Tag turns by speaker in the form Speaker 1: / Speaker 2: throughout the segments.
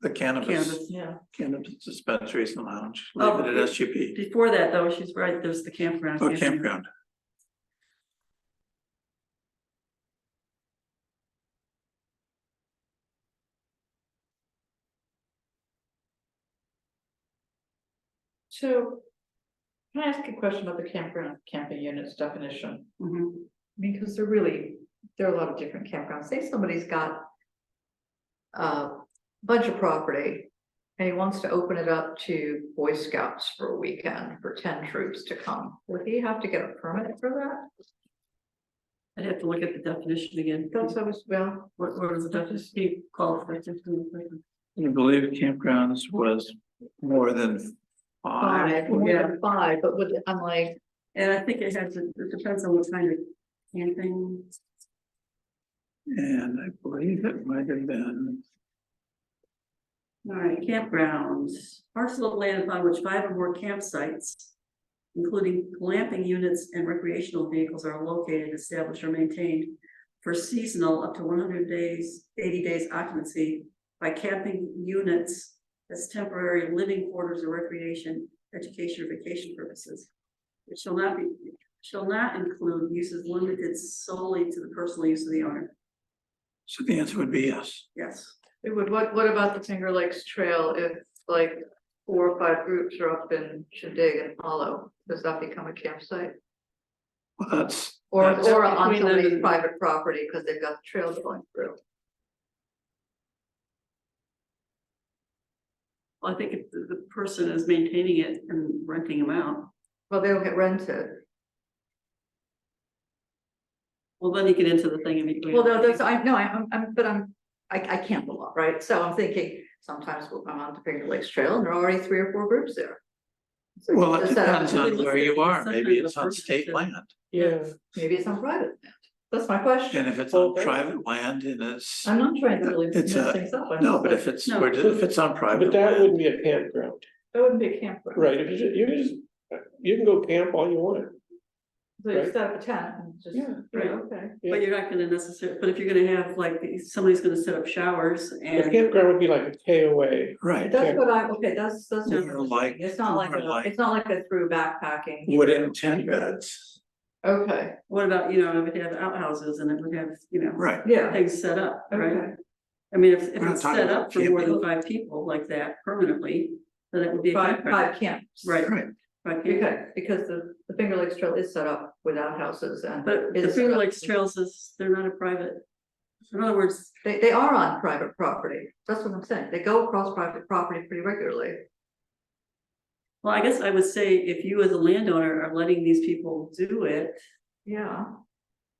Speaker 1: the cannabis,
Speaker 2: cannabis, Oh, yeah.
Speaker 1: cannabis dispensaries and lounge, leave it at SGP,
Speaker 2: Before that, though, she's right, there's the campground.
Speaker 1: or Oh, campground.
Speaker 3: So. Can I ask a question about the campground, camping units definition?
Speaker 2: Mhm.
Speaker 3: Because they're really, there are a lot of different campgrounds. Say somebody's got. uh, A bunch of property. And he wants to open it up to Boy Scouts for a weekend for ten troops to come. Would he have to get a permit for that?
Speaker 2: I'd have to look at the definition again.
Speaker 3: That's always, well,
Speaker 2: What, what is the definition called for? Well,
Speaker 1: I believe campgrounds was more than
Speaker 3: five,
Speaker 1: five.
Speaker 3: more
Speaker 2: yeah.
Speaker 3: than five, but would, I'm like,
Speaker 2: And I think it has, to- it depends on what kind of camping.
Speaker 1: And I believe it might have been,
Speaker 2: All right, campgrounds, parcel of land upon which five or more campsites. Including glamping units and recreational vehicles are located, established or maintained. For seasonal up to one hundred days, eighty days occupancy by camping units. As temporary living quarters or recreation, education or vacation purposes. It shall not be, shall not include uses limited solely to the personal use of the owner,
Speaker 1: so the answer would be yes.
Speaker 2: yes.
Speaker 3: it would, what, what about the Finger Lakes Trail if like. Four or five groups are up in Shindig and Hollow? Does that become a campsite?
Speaker 1: Well, that's,
Speaker 3: Or,
Speaker 1: That's
Speaker 3: or
Speaker 2: up
Speaker 3: on
Speaker 2: between
Speaker 3: somebody's
Speaker 2: the-
Speaker 3: private property, because they've got the trails going through.
Speaker 2: Well, I think if the, the person is maintaining it and renting them out,
Speaker 3: Well, they'll get rented.
Speaker 2: well, then you get into the thing in between.
Speaker 3: Well, no, that's, I, no, I'm, I'm, but I'm, I, I can't belong, right? So I'm thinking, sometimes we'll come on to Finger Lakes Trail and there are already three or four groups there. So
Speaker 1: well, it
Speaker 3: just set up-
Speaker 1: depends on where you are,
Speaker 2: Sometimes
Speaker 1: maybe
Speaker 2: the
Speaker 1: it's on
Speaker 2: person
Speaker 1: state
Speaker 2: should-
Speaker 1: land,
Speaker 4: Yeah,
Speaker 3: Maybe it's on private land. That's my question.
Speaker 1: and if it's on
Speaker 4: Okay.
Speaker 1: private land and it's,
Speaker 3: I'm not trying to really
Speaker 1: It's
Speaker 3: mess
Speaker 1: a-
Speaker 3: things up. I'm
Speaker 1: no,
Speaker 3: just
Speaker 1: but
Speaker 3: like,
Speaker 1: if it's,
Speaker 2: No.
Speaker 1: we're- if it's on private.
Speaker 4: but that
Speaker 1: land,
Speaker 4: wouldn't be a campground,
Speaker 3: That wouldn't be a campground.
Speaker 4: right, if you just, you just, you can go camp all you want,
Speaker 3: So you
Speaker 4: right.
Speaker 3: set up a tent and just,
Speaker 4: Yeah.
Speaker 3: right, okay.
Speaker 2: But you're not gonna necessarily, but if you're gonna have like, somebody's gonna set up showers
Speaker 4: a
Speaker 2: and.
Speaker 4: campground would be like a KOA.
Speaker 1: Right,
Speaker 3: That's what I, okay, that's, that's. what I'm
Speaker 1: Or like-
Speaker 3: thinking. It's not like,
Speaker 1: or
Speaker 3: a-
Speaker 1: like-
Speaker 3: it's not like a through backpacking.
Speaker 1: wooden tent beds,
Speaker 3: Okay,
Speaker 2: What about, you know, if it had outhouses and it would have, you know,
Speaker 1: right,
Speaker 3: yeah,
Speaker 2: things set up, right?
Speaker 3: okay.
Speaker 2: I mean, if, if
Speaker 1: We're not
Speaker 2: it's
Speaker 1: talking
Speaker 2: set
Speaker 1: about
Speaker 2: up for more than
Speaker 1: camping.
Speaker 2: five people like that permanently, then it would be a
Speaker 3: Five,
Speaker 2: campground.
Speaker 3: five camps.
Speaker 2: Right.
Speaker 1: right,
Speaker 2: Right, yeah.
Speaker 3: Okay, because the, the Finger Lakes Trail is set up without houses and.
Speaker 2: But the
Speaker 3: is set
Speaker 2: Finger
Speaker 3: up-
Speaker 2: Lakes Trails is, they're not a private. In other words,
Speaker 3: They, they are on private property. That's what I'm saying. They go across private property pretty regularly.
Speaker 2: well, I guess I would say if you as a landowner are letting these people do it,
Speaker 3: Yeah.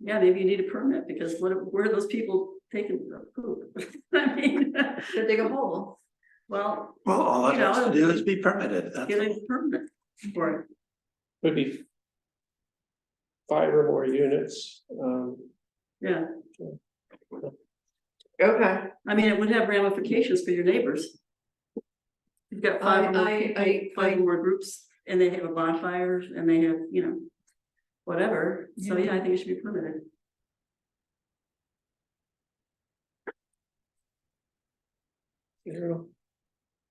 Speaker 2: Yeah, maybe you need a permit because what, where are those people taking the poop? I mean,
Speaker 3: Should dig a hole.
Speaker 2: well,
Speaker 1: well, all it
Speaker 2: You know,
Speaker 1: has to do is be permitted, that's
Speaker 2: get
Speaker 1: all.
Speaker 2: a permit for it.
Speaker 4: Would be. Five or more units, um,
Speaker 2: Yeah,
Speaker 3: Okay.
Speaker 2: I mean, it would have ramifications for your neighbors. You've got five or more
Speaker 3: I-
Speaker 2: people,
Speaker 3: I- I-
Speaker 2: five or more groups, and they have a bonfire, and they have, you know, whatever. So, yeah, I think it should be permitted.
Speaker 4: you know,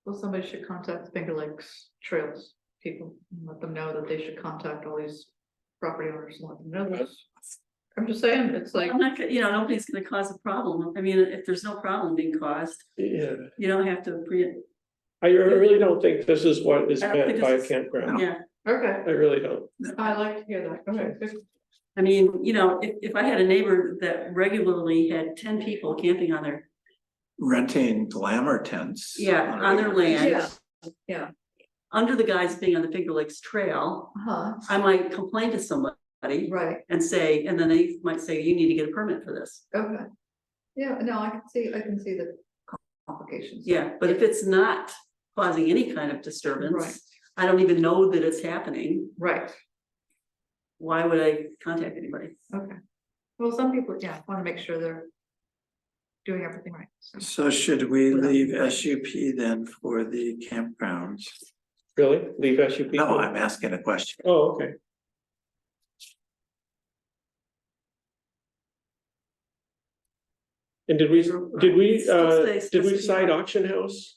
Speaker 3: Well, somebody should contact the Finger Lakes Trails people and let them know that they should contact all these property owners and let them know this. I'm just saying, it's like,
Speaker 2: I'm not, gonna- you know, nobody's gonna cause a problem. I mean, if there's no problem being caused,
Speaker 4: yeah.
Speaker 2: you don't have to pre,
Speaker 4: I really don't think this is what is
Speaker 2: I don't
Speaker 4: meant
Speaker 2: think
Speaker 4: by a
Speaker 2: this is-
Speaker 4: campground,
Speaker 2: yeah.
Speaker 3: okay,
Speaker 4: I really don't,
Speaker 3: I like to hear that. Okay, good.
Speaker 2: I mean, you know, if, if I had a neighbor that regularly had ten people camping on their,
Speaker 1: renting glamour tents.
Speaker 2: yeah,
Speaker 1: a
Speaker 2: on their
Speaker 1: regular basis.
Speaker 2: land.
Speaker 3: yeah.
Speaker 2: Under the guise of being on the Finger Lakes Trail,
Speaker 3: huh,
Speaker 2: I might complain to somebody
Speaker 3: Uh-huh. right,
Speaker 2: and say, and then they might say, you need to get a permit for this.
Speaker 3: okay. Yeah, no, I can see, I can see the complications.
Speaker 2: Yeah, but if it's not causing any kind of
Speaker 3: Right,
Speaker 2: disturbance, I don't even know that it's happening,
Speaker 3: right.
Speaker 2: why would I contact anybody?
Speaker 3: Okay. Well, some people, yeah, wanna make sure they're doing everything right. so.
Speaker 1: So should we
Speaker 3: Without-
Speaker 1: leave SUP then for the campgrounds?
Speaker 4: really, leave SUP.
Speaker 1: No, I'm asking a question.
Speaker 4: Oh, okay, and did we, did we,
Speaker 2: Still
Speaker 4: uh,
Speaker 2: stays
Speaker 4: did we
Speaker 2: specific.
Speaker 4: uh,
Speaker 1: uh,
Speaker 4: cite auction house?